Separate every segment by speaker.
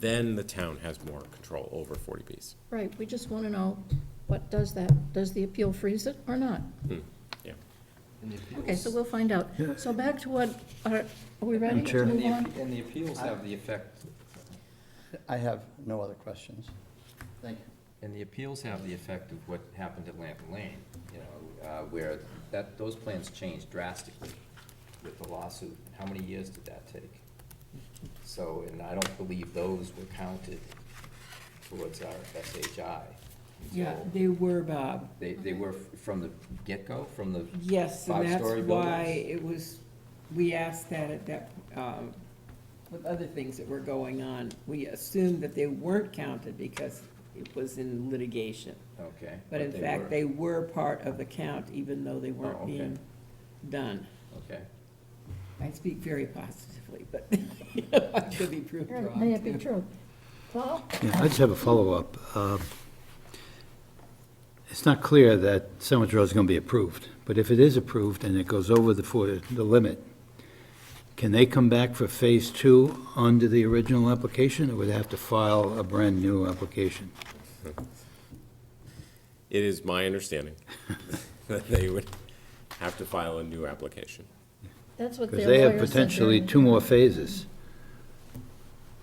Speaker 1: then the town has more control over 40Bs.
Speaker 2: Right, we just want to know, what does that, does the appeal freeze it or not?
Speaker 1: Hmm, Yeah.
Speaker 3: And the appeals-
Speaker 2: Okay, so we'll find out. So back to what, are, are we ready
Speaker 4: Madam
Speaker 2: to
Speaker 4: Chair.
Speaker 3: And
Speaker 2: move
Speaker 3: the,
Speaker 2: on?
Speaker 3: appe- and the appeals have the effect,
Speaker 4: I have no other questions. Thank you.
Speaker 3: and the appeals have the effect of what happened at Lamp Lane, you know, uh, where that, those plans changed drastically with the lawsuit. How many years did that take? So, and I don't believe those were counted towards our SHI.
Speaker 5: Yeah,
Speaker 3: So
Speaker 5: they were, Bob.
Speaker 3: They, they were f- from the get-go, from the,
Speaker 5: Yes, and that's
Speaker 3: Five-story
Speaker 5: why
Speaker 3: buildings.
Speaker 5: it was, we asked that at that, um, with other things that were going on. We assumed that they weren't counted because it was in litigation.
Speaker 3: okay.
Speaker 5: But in
Speaker 3: were.
Speaker 5: fact, they were part of the count, even though they
Speaker 3: Oh,
Speaker 5: weren't
Speaker 3: okay.
Speaker 5: being done.
Speaker 3: Okay.
Speaker 5: I speak very positively, but you know, I could be proved
Speaker 2: Right, May
Speaker 5: wrong.
Speaker 2: it be true. Paul?
Speaker 6: Yeah, I just have a follow-up. Uh, It's not clear that Sandwich Road is going to be approved, but if it is approved and it goes over the, for the limit, can they come back for Phase Two under the original application, or would they have to file a brand-new application?
Speaker 1: It is my understanding that they would have to file a new application.
Speaker 2: That's what
Speaker 6: Because
Speaker 2: their
Speaker 6: they have
Speaker 2: lawyer said
Speaker 6: potentially
Speaker 2: during-
Speaker 6: two more phases.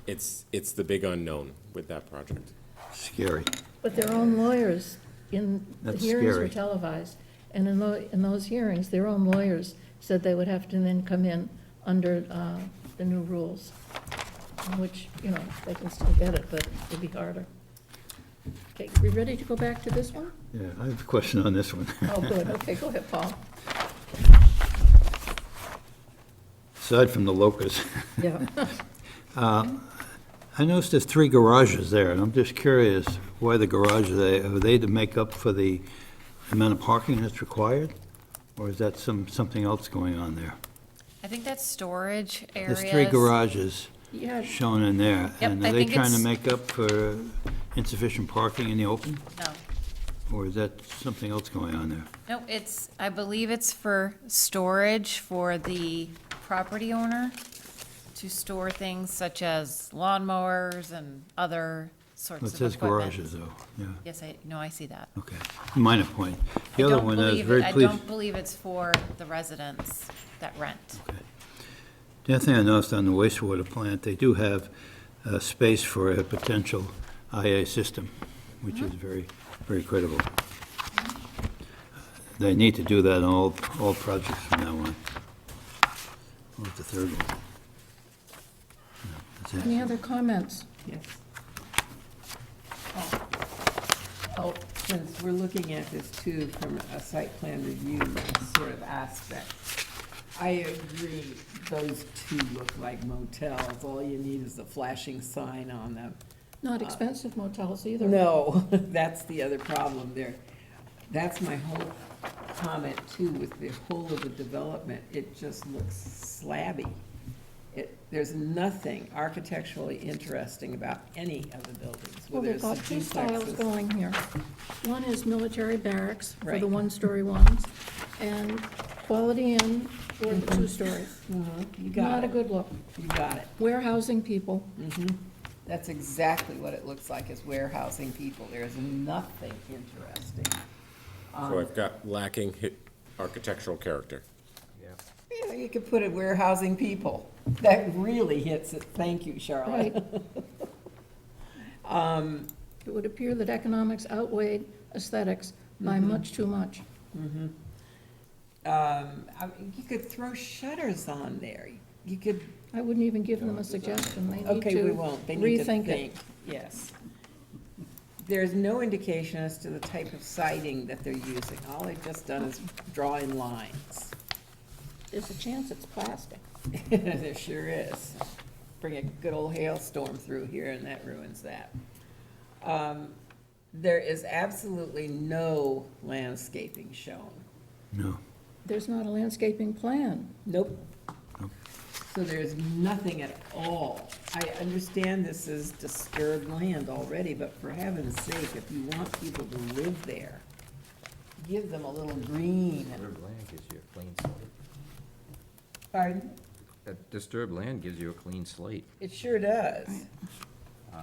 Speaker 1: It's, it's the big unknown with that project.
Speaker 6: Scary.
Speaker 2: But their own lawyers, in, the
Speaker 6: That's
Speaker 2: hearings were
Speaker 6: scary.
Speaker 2: televised, and in tho, in those hearings, their own lawyers said they would have to then come in under, uh, the new rules, which, you know, they can still get it, but it'd be harder. Okay, we ready to go back to this one?
Speaker 6: Yeah, I have a question on this one.
Speaker 2: Oh, good, okay, go ahead, Paul.
Speaker 6: Aside from the locusts.
Speaker 2: Yeah.
Speaker 6: I noticed there's three garages there, and I'm just curious why the garage, are they, are they to make up for the amount of parking that's required? Or is that some, something else going on there?
Speaker 7: I think that's storage areas.
Speaker 6: There's three garages
Speaker 2: Yeah,
Speaker 6: shown in there.
Speaker 7: Yep,
Speaker 6: And
Speaker 7: I
Speaker 6: are they
Speaker 7: think
Speaker 6: trying to
Speaker 7: it's-
Speaker 6: make up for insufficient parking in the open?
Speaker 7: No,
Speaker 6: Or is that something else going on there?
Speaker 7: no, it's, I believe it's for storage for the property owner to store things such as lawnmowers and other sorts
Speaker 6: Well,
Speaker 7: of
Speaker 6: It says
Speaker 7: equipment.
Speaker 6: garages, though, yeah,
Speaker 7: Yes, I, no, I see that.
Speaker 6: okay. Minor point. The
Speaker 7: I
Speaker 6: other
Speaker 7: don't
Speaker 6: one, I was
Speaker 7: believe it-
Speaker 6: very
Speaker 7: I
Speaker 6: pleased,
Speaker 7: don't believe it's for the residents that rent.
Speaker 6: The other thing I noticed on the wastewater plant, they do have uh, space for a potential IA system, which is very, very critical. They need to do that on all, all projects from now on. What was the third one? No, that's it.
Speaker 2: any other comments?
Speaker 5: Yes.
Speaker 2: Oh,
Speaker 5: Since we're looking at this too from a site plan review sort of aspect, I agree, those two look like motels. All you need is a flashing sign on them.
Speaker 2: Not expensive motels either.
Speaker 5: No, that's the other problem there. That's my whole comment too with the whole of the development. It just looks slabby. It, there's nothing architecturally interesting about any of the buildings,
Speaker 2: Well,
Speaker 5: whether
Speaker 2: they've
Speaker 5: it's
Speaker 2: got
Speaker 5: the
Speaker 2: two styles
Speaker 5: duplexes.
Speaker 2: going here. One is military barracks for the
Speaker 5: Right.
Speaker 2: one-story ones, and Quality Inn for the two stories.
Speaker 5: Uh-huh, You got
Speaker 2: Not a
Speaker 5: it,
Speaker 2: good look.
Speaker 5: you got it.
Speaker 2: Warehousing people,
Speaker 5: That's exactly what it looks like, is warehousing people. There is nothing interesting.
Speaker 1: So I've got lacking hi- architectural character.
Speaker 5: Yeah, You could put it warehousing people. That really hits it. Thank you, Charlotte.
Speaker 2: right?
Speaker 5: Um,
Speaker 2: It would appear that economics outweighed aesthetics by
Speaker 5: Mm-hmm.
Speaker 2: much too much.
Speaker 5: Um, I mean, you could throw shutters on there. You could,
Speaker 2: I wouldn't even give them a suggestion. They need
Speaker 5: okay, we
Speaker 2: to
Speaker 5: won't. They need to
Speaker 2: rethink
Speaker 5: think,
Speaker 2: it.
Speaker 5: yes. There's no indication as to the type of siding that they're using. All they've just done is draw in lines.
Speaker 2: There's a chance it's plastic.
Speaker 5: There sure is. Bring a good old hailstorm through here and that ruins that. Um, There is absolutely no landscaping shown.
Speaker 6: No,
Speaker 2: There's not a landscaping plan.
Speaker 5: Nope. So there's nothing at all. I understand this is disturbed land already, but for heaven's sake, if you want people to live there, give them a little green.
Speaker 3: Disturbed land gives you a clean slate.
Speaker 5: Pardon?
Speaker 3: That disturbed land gives you a clean slate.
Speaker 5: It sure does.